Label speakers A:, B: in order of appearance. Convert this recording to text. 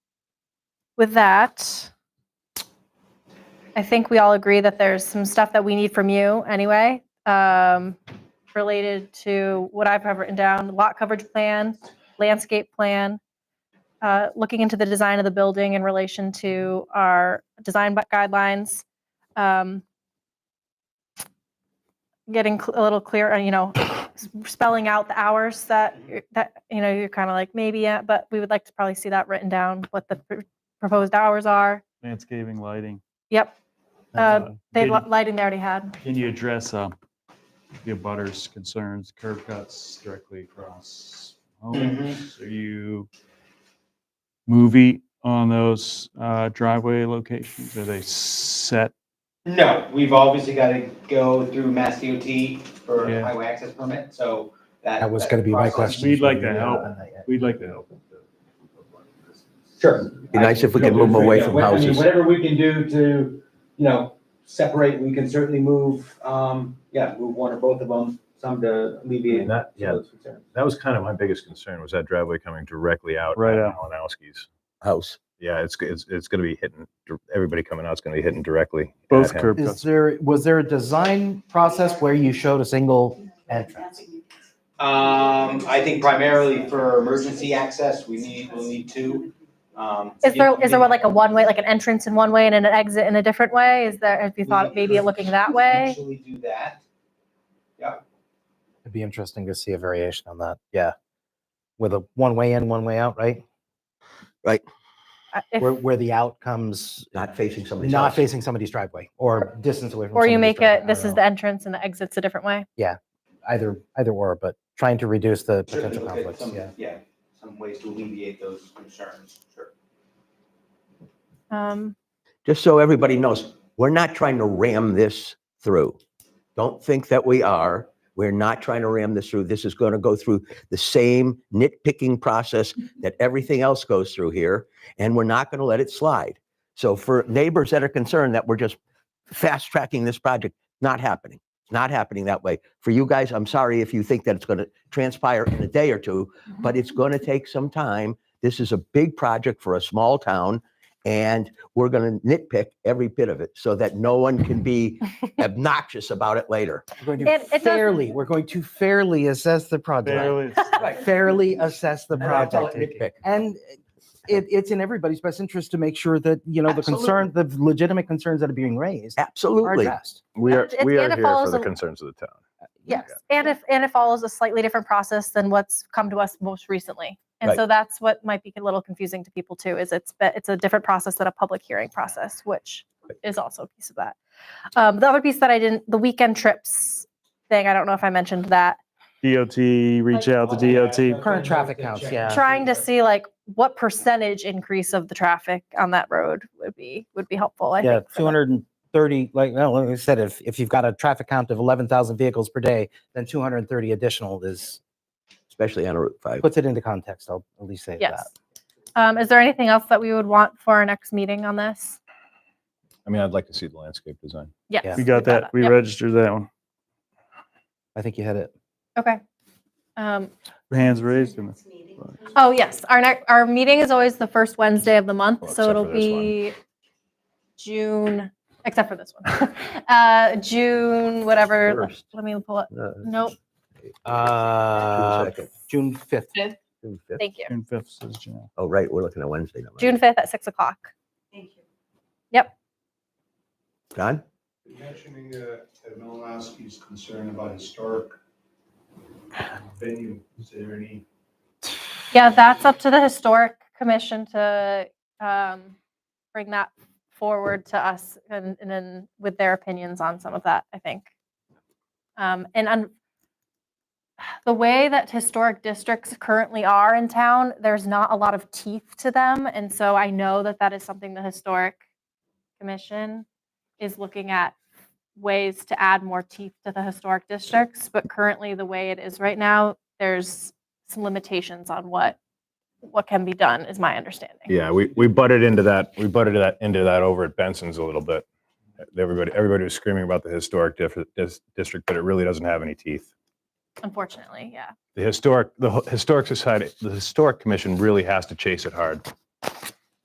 A: with that, I think we all agree that there's some stuff that we need from you anyway, um, related to what I've have written down, lot coverage plan, landscape plan, uh, looking into the design of the building in relation to our design bu- guidelines, um, getting cl- a little clearer, you know, s- spelling out the hours that, you're- that, you know, you're kind of like, maybe, yeah, but we would like to probably see that written down, what the pr- proposed hours are.
B: landscaping, lighting.
A: Yep,
B: and,
A: Uh,
B: uh,
A: they,
B: Can
A: li- lighting they already had.
B: can you address uh, the butters' concerns, curb cuts directly across homes? Are you movie on those uh, driveway locations? Are they set?
C: No, we've obviously got to go through Mass DOT for
B: Yeah.
C: highway access permit, so that.
D: That was
C: that
D: gonna be my
C: process-
D: question.
B: We'd like to help. We'd like to help.
C: Sure.
E: Be nice if we could move 'em away from
C: Yeah, I mean,
E: houses.
C: Whatever we can do to, you know, separate, we can certainly move, um, yeah, move one or both of them, some to alleviate.
F: And that, yeah,
C: those concerns.
F: that was kind of my biggest concern was that driveway coming directly out.
B: Right
F: at
B: out.
F: Malinowski's.
E: house.
F: Yeah, it's, it's, it's going to be hitting, dir- everybody coming out's going to be hitting directly. at
B: Both
F: him.
B: curb
D: Is
B: cuts.
D: there, was there a design process where you showed a single entrance?
C: Um, I think primarily for emergency access, we need, we'll need two. Um,
A: Is there,
C: yeah,
A: is there what, like a one-way, like an entrance in one way and an exit in a different way? Is there, have you
C: Mm.
A: thought maybe of looking that way?
C: Potentially do that.
D: It'd be interesting to see a variation on that. Yeah. With a one way in, one way out, right?
A: Uh, if-
D: Where, where the out comes
E: Not facing somebody's
D: not
E: house.
D: facing somebody's driveway or distance away from.
A: Or you
D: somebody's
A: make
D: driveway.
A: it, this is the entrance and the exit's a different way?
D: I don't know. either, either or, but trying to reduce the
C: Sure,
D: potential
C: look at
D: conflicts.
C: some-
D: Yeah.
C: Yeah, some ways to alleviate those concerns, sure.
A: Um,
E: Just so everybody knows, we're not trying to ram this through. Don't think that we are. We're not trying to ram this through. This is going to go through the same nitpicking process that everything else goes through here, and we're not going to let it slide. So for neighbors that are concerned that we're just fast tracking this project, not happening. It's not happening that way. For you guys, I'm sorry if you think that it's going to transpire in a day or two, but it's going to take some time. This is a big project for a small town, and we're going to nitpick every bit of it so that no one can be obnoxious about it later.
D: We're going
A: It- it
D: to
A: doesn't-
D: fairly, we're going to fairly assess the project.
B: Barely-
D: Fairly assess the
E: And I call it
D: project.
E: nitpick.
D: And it, it's in everybody's best interest to make sure that, you know, the concern, the legitimate concerns that are being raised are
E: Absolutely.
D: addressed.
F: We are,
A: It's- it's
F: we are
A: gonna
F: here
A: follow
F: for the
A: some-
F: concerns of the town.
A: yes, and if, and it follows a slightly different process than what's come to us most recently. And
E: Right.
A: so that's what might be a little confusing to people too, is it's, be- it's a different process than a public hearing process, which is also a piece of that. Um, the other piece that I didn't, the weekend trips thing, I don't know if I mentioned that.
B: DOT, reach out to DOT.
D: Current traffic counts, yeah.
A: Trying to see like what percentage increase of the traffic on that road would be, would be helpful, I
D: Yeah,
A: think.
D: two hundred and thirty, like, no, like I said, if, if you've got a traffic count of eleven thousand vehicles per day, then two hundred and thirty additional is,
E: Especially on Route 5.
D: puts it into context, I'll at least say that.
A: Yes. Um, is there anything else that we would want for our next meeting on this?
F: I mean, I'd like to see the landscape design.
A: Yes.
B: We got that. We
A: Yep.
B: registered that one.
D: I think you had it.
A: Okay. Um,
B: Hands raised. in the-
A: oh, yes, our next, our meeting is always the first Wednesday of the month,
F: Well,
A: so
F: except
A: it'll
F: for this one.
A: be June, except for this one. Uh, June, whatever,
E: First.
A: let me pull it,
E: Uh,
A: nope,
D: Uh,
E: second.
D: June fifth.
E: June 5th.
A: thank you.
B: June 5th says Jan.
E: Oh, right, we're looking at Wednesday. never mind.
A: June fifth at six o'clock.
E: John?
G: Mentioning uh, Ted Malinowski's concern about historic venue, is there any?
A: Yeah, that's up to the historic commission to, um, bring that forward to us and, and then with their opinions on some of that, I think. Um, and on the way that historic districts currently are in town, there's not a lot of teeth to them. And so I know that that is something the historic commission is looking at ways to add more teeth to the historic districts. But currently, the way it is right now, there's some limitations on what, what can be done, is my understanding.
F: Yeah, we, we butted into that, we butted that, into that over at Benson's a little bit. Everybody, everybody was screaming about the historic dif- dis- district, but it really doesn't have any teeth.
A: Unfortunately, yeah.
F: The historic, the Ho- Historic Society, the Historic Commission really has to chase it hard.